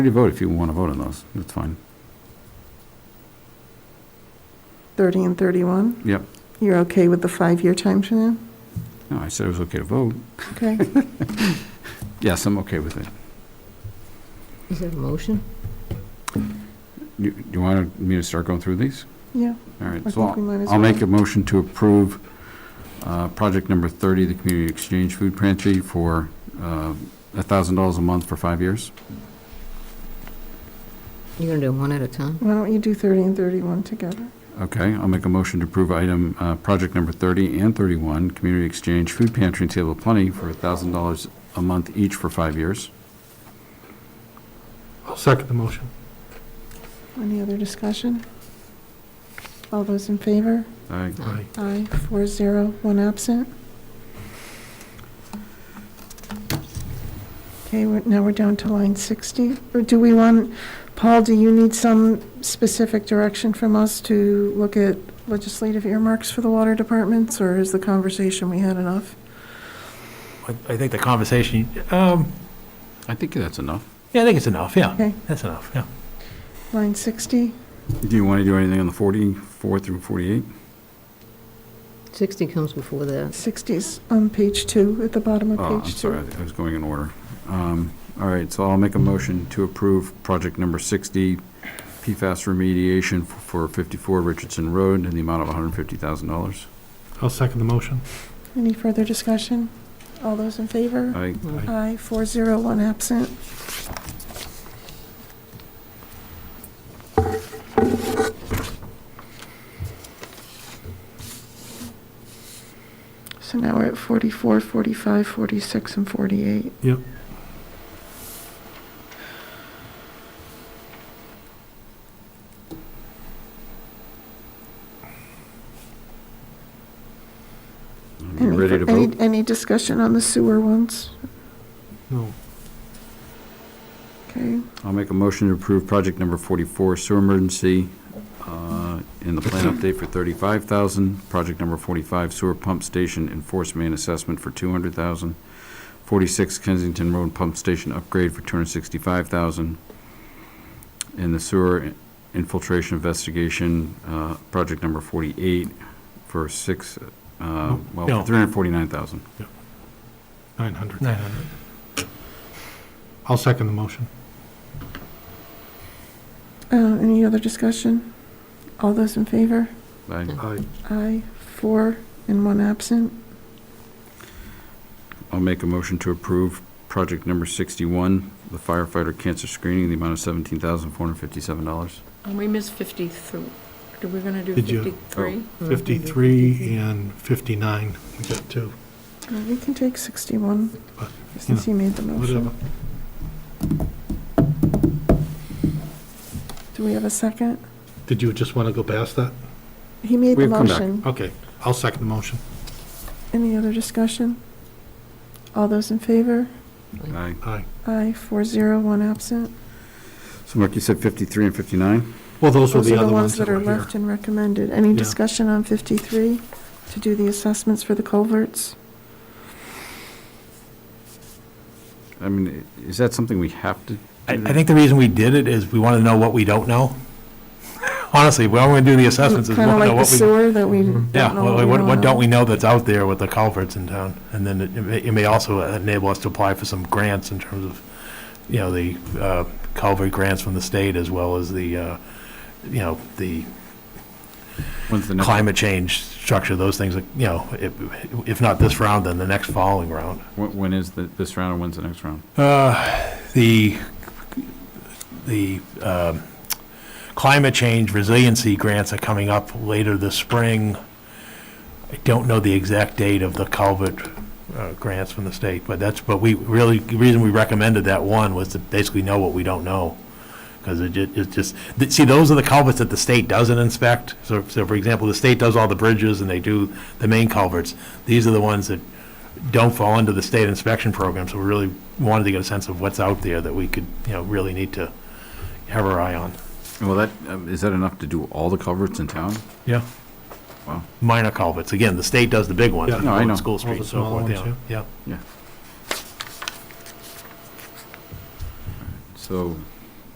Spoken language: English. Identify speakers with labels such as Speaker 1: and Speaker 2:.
Speaker 1: Ready to vote if you want to vote on those, that's fine.
Speaker 2: 30 and 31?
Speaker 1: Yep,
Speaker 2: You're okay with the five-year time frame?
Speaker 1: no, I said it was okay to vote.
Speaker 2: Okay.
Speaker 1: Yes, I'm okay with it.
Speaker 3: Is that a motion?
Speaker 1: You, you want me to start going through these?
Speaker 2: Yeah,
Speaker 1: All right,
Speaker 2: I
Speaker 1: so
Speaker 2: think we might as
Speaker 1: I'll make
Speaker 2: well.
Speaker 1: a motion to approve uh, project number 30, the Community Exchange Food Pantry, for uh, $1,000 a month for five years.
Speaker 3: You're going to do one at a time?
Speaker 2: Why don't you do 30 and 31 together?
Speaker 1: Okay, I'll make a motion to approve item, uh, project number 30 and 31, Community Exchange Food Pantry and Table of Plenty, for $1,000 a month each for five years.
Speaker 4: I'll second the motion.
Speaker 2: Any other discussion? All those in favor?
Speaker 1: All right,
Speaker 4: Aye.
Speaker 2: Aye, four zero, one absent. Okay, we're- now we're down to line 60. Or do we want, Paul, do you need some specific direction from us to look at legislative earmarks for the water departments, or is the conversation we had enough?
Speaker 5: I- I think the conversation, um,
Speaker 1: I think that's enough.
Speaker 5: yeah, I think it's enough, yeah.
Speaker 2: Okay.
Speaker 5: That's enough, yeah.
Speaker 2: Line 60?
Speaker 1: Do you want to do anything on the 44 through 48?
Speaker 3: 60 comes before that.
Speaker 2: 60s on page two, at the bottom of
Speaker 1: Oh, I'm
Speaker 2: page two.
Speaker 1: sorry, I I was going in order. Um, All right, so I'll make a motion to approve project number 60, PFAS remediation f- for 54 Richardson Road in the amount of $150,000.
Speaker 4: I'll second the motion.
Speaker 2: Any further discussion? All those in favor?
Speaker 1: I,
Speaker 3: Mm.
Speaker 2: Aye, four zero, one absent. So now we're at 44, 45, 46, and 48.
Speaker 4: Yep.
Speaker 1: you
Speaker 2: Any-
Speaker 1: ready to
Speaker 2: any-
Speaker 1: vote?
Speaker 2: Any discussion on the sewer ones?
Speaker 4: No.
Speaker 2: Okay,
Speaker 1: I'll make a motion to approve project number 44 sewer emergency uh, in the plan update for 35,000, project number 45 sewer pump station enforcement assessment for 200,000, 46 Kensington Road pump station upgrade for 265,000, and the sewer infiltration investigation, uh, project number 48 for six, uh, well,
Speaker 5: No.
Speaker 1: for 349,000.
Speaker 4: 900.
Speaker 5: 900.
Speaker 4: I'll second the motion.
Speaker 2: Uh, any other discussion? All those in favor?
Speaker 1: I-
Speaker 4: Aye.
Speaker 2: Aye, four and one absent.
Speaker 1: I'll make a motion to approve project number 61, the firefighter cancer screening, in the amount of $17,457.
Speaker 6: And we missed 53. Are we going to do
Speaker 4: Did you-
Speaker 6: 53?
Speaker 4: 53 and 59, we got two.
Speaker 2: Uh, We can take 61,
Speaker 4: But,
Speaker 2: since he made the motion.
Speaker 4: Whatever.
Speaker 2: Do we have a second?
Speaker 4: Did you just want to go past that?
Speaker 2: He made the
Speaker 1: We've come back.
Speaker 2: motion.
Speaker 4: Okay, I'll second the motion.
Speaker 2: Any other discussion? All those in favor?
Speaker 1: Aye.
Speaker 4: Aye.
Speaker 2: Aye, four zero, one absent.
Speaker 1: So Mark, you said 53 and 59?
Speaker 4: Well, those were
Speaker 2: Those
Speaker 4: the
Speaker 2: are the
Speaker 4: other
Speaker 2: ones that are
Speaker 4: were here.
Speaker 2: left and recommended. Any
Speaker 4: Yeah.
Speaker 2: discussion on 53 to do the assessments for the culverts?
Speaker 1: I mean, i- is that something we have to?
Speaker 5: I, I think the reason we did it is we wanted to know what we don't know. Honestly, we only do the assessments is we
Speaker 2: Kind of
Speaker 5: want to know
Speaker 2: like the
Speaker 5: what we.
Speaker 2: sewer that we don't
Speaker 5: Yeah,
Speaker 2: know
Speaker 5: what, what- what don't we
Speaker 2: know.
Speaker 5: know that's out there with the culverts in town? And then it may, it may also enable us to apply for some grants in terms of, you know, the, uh, culvert grants from the state as well as the, uh, you know, the
Speaker 1: When's the next,
Speaker 5: climate change structure, those things, that, you know, if, if not this round, then the next following round.
Speaker 1: when when is the- this round and when's the next round?
Speaker 5: Uh, The, the um, climate change resiliency grants are coming up later this spring. I don't know the exact date of the culvert uh, grants from the state, but that's, but we really, the reason we recommended that one was to basically know what we don't know. Because it ju- it just, th- see, those are the culverts that the state doesn't inspect. So, so for example, the state does all the bridges and they do the main culverts. These are the ones that don't fall into the state inspection program, so we really wanted to get a sense of what's out there that we could, you know, really need to have our eye on.
Speaker 1: Well, that, um, is that enough to do all the culverts in town?
Speaker 5: Yeah.
Speaker 1: Wow.
Speaker 5: Minor culverts, again, the state does the big ones,
Speaker 4: Yeah.
Speaker 1: No, I know.
Speaker 5: School
Speaker 4: All
Speaker 5: Street,
Speaker 4: the
Speaker 5: and so
Speaker 4: smaller
Speaker 5: forth,
Speaker 4: ones,
Speaker 5: yeah, yeah.
Speaker 1: So